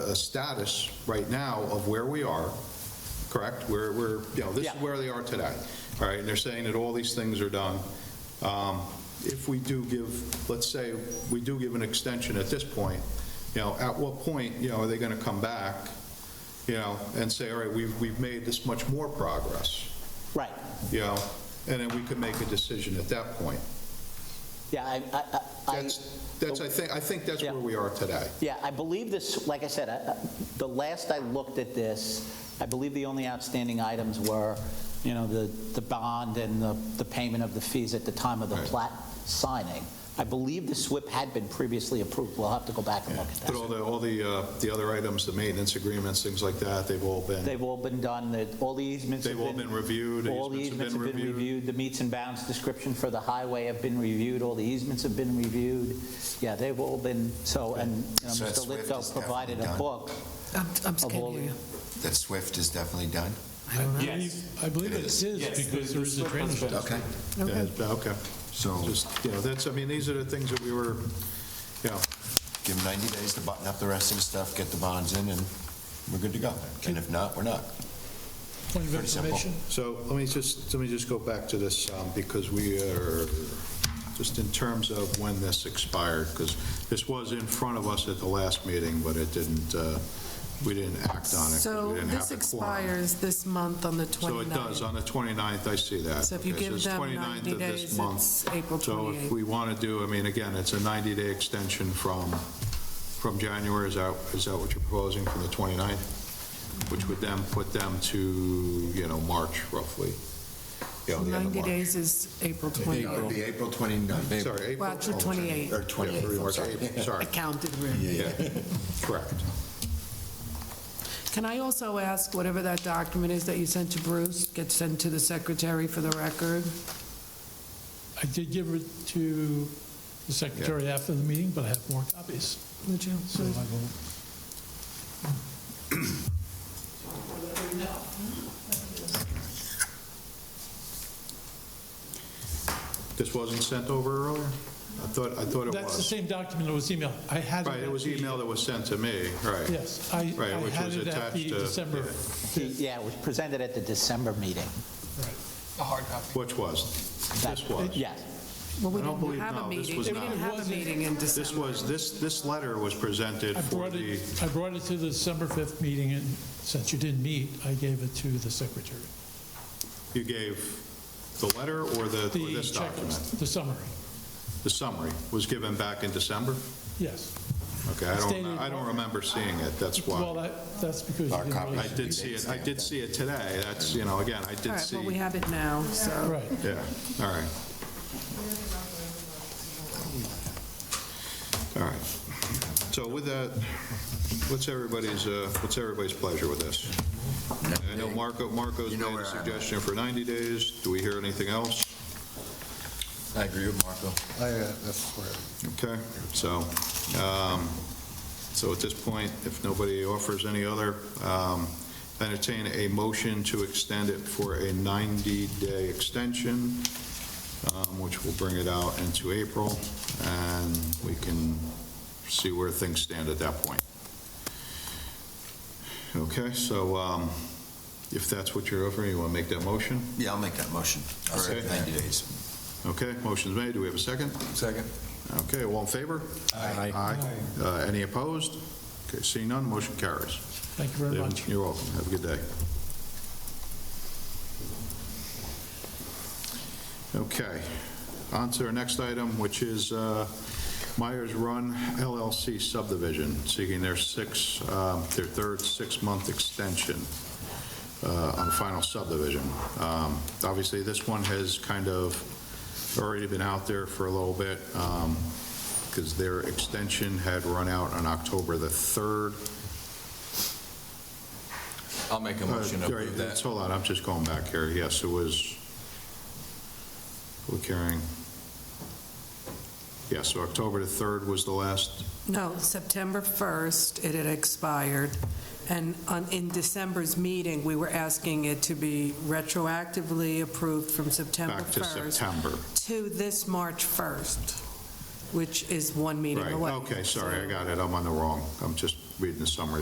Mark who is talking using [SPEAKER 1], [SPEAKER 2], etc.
[SPEAKER 1] a status right now of where we are, correct? Where we're, you know, this is
[SPEAKER 2] Yeah.
[SPEAKER 1] where they are today, all right? And they're saying that all these things are done. Um, If we do give, let's say, we do give an extension at this point, you know, at what point, you know, are they going to come back, you know, and say, all right, we've, we've made this much more progress,
[SPEAKER 2] Right,
[SPEAKER 1] you know? And then we could make a decision at that point.
[SPEAKER 2] yeah, I, I- I- I,
[SPEAKER 1] That's, that's, I think, I think that's
[SPEAKER 2] Yeah.
[SPEAKER 1] where we are today.
[SPEAKER 2] yeah, I believe this, like I said, I- I- the last I looked at this, I believe the only outstanding items were, you know, the, the bond and the, the payment of the fees at the time of the
[SPEAKER 1] Right.
[SPEAKER 2] plat signing. I believe the SWIP had been previously approved, we'll have to go back and look at
[SPEAKER 1] But
[SPEAKER 2] that.
[SPEAKER 1] all the, all the, uh, the other items, the maintenance agreements, things like that, they've all been,
[SPEAKER 2] They've all been done, that all the easements have
[SPEAKER 1] They've
[SPEAKER 2] been...
[SPEAKER 1] all been reviewed,
[SPEAKER 2] All the
[SPEAKER 1] easements
[SPEAKER 2] easements
[SPEAKER 1] have
[SPEAKER 2] have been reviewed, the meets and bounds description for the highway have been reviewed, all the easements have been reviewed. Yeah, they've all been, so, and you know,
[SPEAKER 3] So
[SPEAKER 2] Mr.
[SPEAKER 3] Swift
[SPEAKER 2] Litko
[SPEAKER 3] is definitely
[SPEAKER 2] provided a
[SPEAKER 3] done.
[SPEAKER 2] book
[SPEAKER 4] I'm, I'm just
[SPEAKER 2] of
[SPEAKER 4] kidding.
[SPEAKER 2] all the...
[SPEAKER 3] That Swift is definitely done?
[SPEAKER 4] I don't know.
[SPEAKER 5] Yes.
[SPEAKER 6] I believe
[SPEAKER 3] It
[SPEAKER 6] it
[SPEAKER 3] is.
[SPEAKER 6] is,
[SPEAKER 5] Yes,
[SPEAKER 6] because
[SPEAKER 5] the- the
[SPEAKER 6] there is a
[SPEAKER 5] slip has
[SPEAKER 6] transfer.
[SPEAKER 5] been-
[SPEAKER 3] Okay.
[SPEAKER 1] yeah, okay.
[SPEAKER 3] So
[SPEAKER 1] Just, you know, that's, I mean, these are the things that we were, you know,
[SPEAKER 3] give them 90 days to button up the rest of the stuff, get the bonds in, and we're good to go. And if not, we're not.
[SPEAKER 6] Point of
[SPEAKER 3] Pretty simple.
[SPEAKER 6] information,
[SPEAKER 1] so let me just, let me just go back to this, um, because we are, just in terms of when this expired, because this was in front of us at the last meeting, but it didn't, uh, we didn't act on it. 'cause
[SPEAKER 4] So
[SPEAKER 1] we didn't have
[SPEAKER 4] this
[SPEAKER 1] the quorum.
[SPEAKER 4] expires this month on the
[SPEAKER 1] So
[SPEAKER 4] 29th.
[SPEAKER 1] it does, on the 29th, I see that.
[SPEAKER 4] So if you
[SPEAKER 1] Okay,
[SPEAKER 4] give
[SPEAKER 1] it's
[SPEAKER 4] them
[SPEAKER 1] 29th
[SPEAKER 4] 90
[SPEAKER 1] of this
[SPEAKER 4] days,
[SPEAKER 1] month.
[SPEAKER 4] it's April
[SPEAKER 1] So if
[SPEAKER 4] 28th.
[SPEAKER 1] we want to do, I mean, again, it's a 90-day extension from, from January, is that, is that what you're proposing, from the 29th? Which would then put them to, you know, March roughly. Yeah, the end of
[SPEAKER 4] 90
[SPEAKER 1] March.
[SPEAKER 4] days is April 29th.
[SPEAKER 3] be April 29th.
[SPEAKER 1] Sorry, April.
[SPEAKER 4] Well, April 28th.
[SPEAKER 3] Or 28th, I'm
[SPEAKER 1] March,
[SPEAKER 3] sorry.
[SPEAKER 1] April, Sorry,
[SPEAKER 4] I counted really.
[SPEAKER 1] yeah, correct.
[SPEAKER 4] Can I also ask, whatever that document is that you sent to Bruce, gets sent to the secretary for the record?
[SPEAKER 6] I did give it to the secretary after the meeting, but I have more copies,
[SPEAKER 4] Would you?
[SPEAKER 6] so I will,
[SPEAKER 1] This wasn't sent over earlier? I thought, I thought it
[SPEAKER 6] that's the
[SPEAKER 1] was.
[SPEAKER 6] same document that was emailed, I had it.
[SPEAKER 1] Right, it
[SPEAKER 6] at
[SPEAKER 1] was
[SPEAKER 6] the-
[SPEAKER 1] email that was sent to me, right.
[SPEAKER 6] Yes, I
[SPEAKER 1] Right,
[SPEAKER 6] I
[SPEAKER 1] which
[SPEAKER 6] had
[SPEAKER 1] was
[SPEAKER 6] it at
[SPEAKER 1] attached
[SPEAKER 6] the
[SPEAKER 1] to-
[SPEAKER 6] December,
[SPEAKER 1] yeah.
[SPEAKER 2] Yeah, it was presented at the December meeting.
[SPEAKER 1] Which was?
[SPEAKER 2] That-
[SPEAKER 1] This was?
[SPEAKER 2] Yes,
[SPEAKER 4] Well, we
[SPEAKER 1] I don't
[SPEAKER 4] didn't
[SPEAKER 1] believe-
[SPEAKER 4] have a
[SPEAKER 1] no, this
[SPEAKER 4] meeting. We
[SPEAKER 1] was
[SPEAKER 4] didn't
[SPEAKER 1] not.
[SPEAKER 4] have a
[SPEAKER 6] Wasn't-
[SPEAKER 4] meeting in
[SPEAKER 1] This
[SPEAKER 4] December.
[SPEAKER 1] was, this, this letter was presented
[SPEAKER 6] I
[SPEAKER 1] for
[SPEAKER 6] brought
[SPEAKER 1] the,
[SPEAKER 6] it, I brought it to the December 5th meeting, and since you didn't meet, I gave it to the secretary.
[SPEAKER 1] you gave the letter or the, or
[SPEAKER 6] The
[SPEAKER 1] this document?
[SPEAKER 6] checklist, the summary,
[SPEAKER 1] The summary was given back in December?
[SPEAKER 6] yes.
[SPEAKER 1] Okay, I don't,
[SPEAKER 6] Stated-
[SPEAKER 1] know- I don't remember seeing it, that's
[SPEAKER 6] Well,
[SPEAKER 1] why.
[SPEAKER 6] that- that's because you
[SPEAKER 3] Our
[SPEAKER 6] didn't
[SPEAKER 1] I
[SPEAKER 6] really,
[SPEAKER 3] copy.
[SPEAKER 1] did see it, I did see it today, that's, you know, again, I
[SPEAKER 4] All
[SPEAKER 1] did
[SPEAKER 4] right,
[SPEAKER 1] see.
[SPEAKER 4] well, we have it now, so.
[SPEAKER 6] right.
[SPEAKER 1] Yeah, all right. All right. So with that, what's everybody's, uh, what's everybody's pleasure with this? I know Marco, Marco's
[SPEAKER 3] You know
[SPEAKER 1] made
[SPEAKER 3] where
[SPEAKER 1] a
[SPEAKER 3] I'm at.
[SPEAKER 1] suggestion for 90 days. Do we hear anything else?
[SPEAKER 3] I agree with Marco.
[SPEAKER 7] I, uh, that's where,
[SPEAKER 1] Okay, so, um, so at this point, if nobody offers any other, um, entertain a motion to extend it for a 90-day extension, um, which will bring it out into April, and we can see where things stand at that point. Okay, so um, if that's what you're offering, you want to make that motion?
[SPEAKER 3] Yeah, I'll make that motion for
[SPEAKER 1] Okay.
[SPEAKER 3] 90 days.
[SPEAKER 1] Okay, motion's made. Do we have a second?
[SPEAKER 3] Second.
[SPEAKER 1] Okay, all in favor? Aye. Uh, Any opposed? Okay, seeing none, motion carries.
[SPEAKER 6] Thank you very much.
[SPEAKER 1] You're welcome, have a good day. Okay, on to our next item, which is uh, Myers Run LLC subdivision, seeking their six, um, their third six-month extension uh, on the final subdivision. Um, Obviously, this one has kind of already been out there for a little bit, because their extension had run out on October the 3rd.
[SPEAKER 8] I'll make a
[SPEAKER 1] Uh,
[SPEAKER 8] motion to
[SPEAKER 1] Jerry,
[SPEAKER 8] approve
[SPEAKER 1] it's-
[SPEAKER 8] that.
[SPEAKER 1] Hold on, I'm just going back here. Yes, it was public hearing. Yeah, so October the 3rd was the last,
[SPEAKER 4] No, September 1st, it had expired, and on- in December's meeting, we were asking it to be retroactively approved from September
[SPEAKER 1] back to
[SPEAKER 4] 1st
[SPEAKER 1] September.
[SPEAKER 4] to this March 1st, which is one meeting
[SPEAKER 1] Right,
[SPEAKER 4] away.
[SPEAKER 1] okay, sorry, I got it, I'm on the wrong, I'm just reading the summary